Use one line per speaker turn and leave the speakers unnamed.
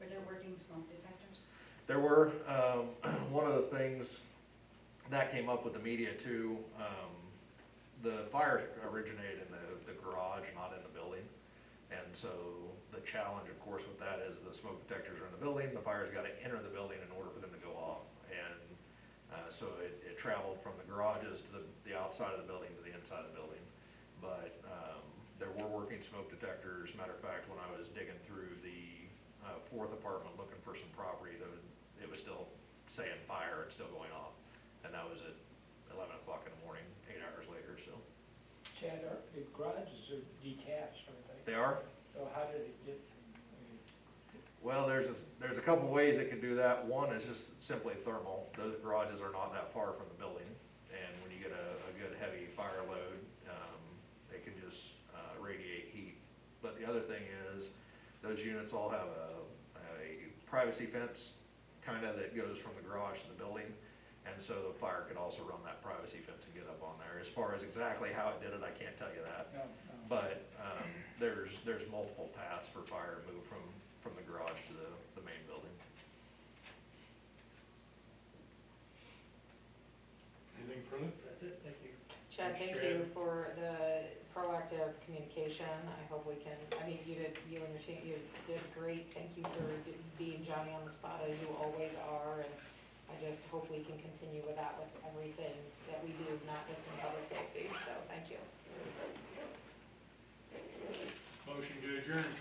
including smoke detectors?
There were, um, one of the things that came up with the media too, um, the fire originated in the, the garage, not in the building. And so the challenge, of course, with that is the smoke detectors are in the building, the fire's gotta enter the building in order for them to go off. And, uh, so it, it traveled from the garages to the, the outside of the building to the inside of the building. But, um, there were working smoke detectors, matter of fact, when I was digging through the, uh, fourth apartment looking for some property, there was, it was still saying fire, it's still going off. And that was at eleven o'clock in the morning, eight hours later, so.
Chad, our, the garages are detached, aren't they?
They are,
So how did it get, I
well, there's, a- there's a couple ways it could do that. One is just simply thermal. Those garages are not that far from the building. And when you get a, a good heavy fire load, um, they can just uh, radiate heat. But the other thing is, those units all have a, a privacy fence, kinda that goes from the garage to the building. And so the fire could also run that privacy fence and get up on there. As far as exactly how it did it, I can't tell you that.
mean, no, no.
But, um, there's, there's multiple paths for fire to move from, from the garage to the, the main building.
Anything further?
That's it, thank you.
Chad, thank you for the proactive communication. I hope we can, I mean, you did, you and your team, you did great. Thank you for d- being Johnny on the spot as you always are. And I just hope we can continue with that with everything that we do, not just in public safety. So thank you.
Motion to adjourn.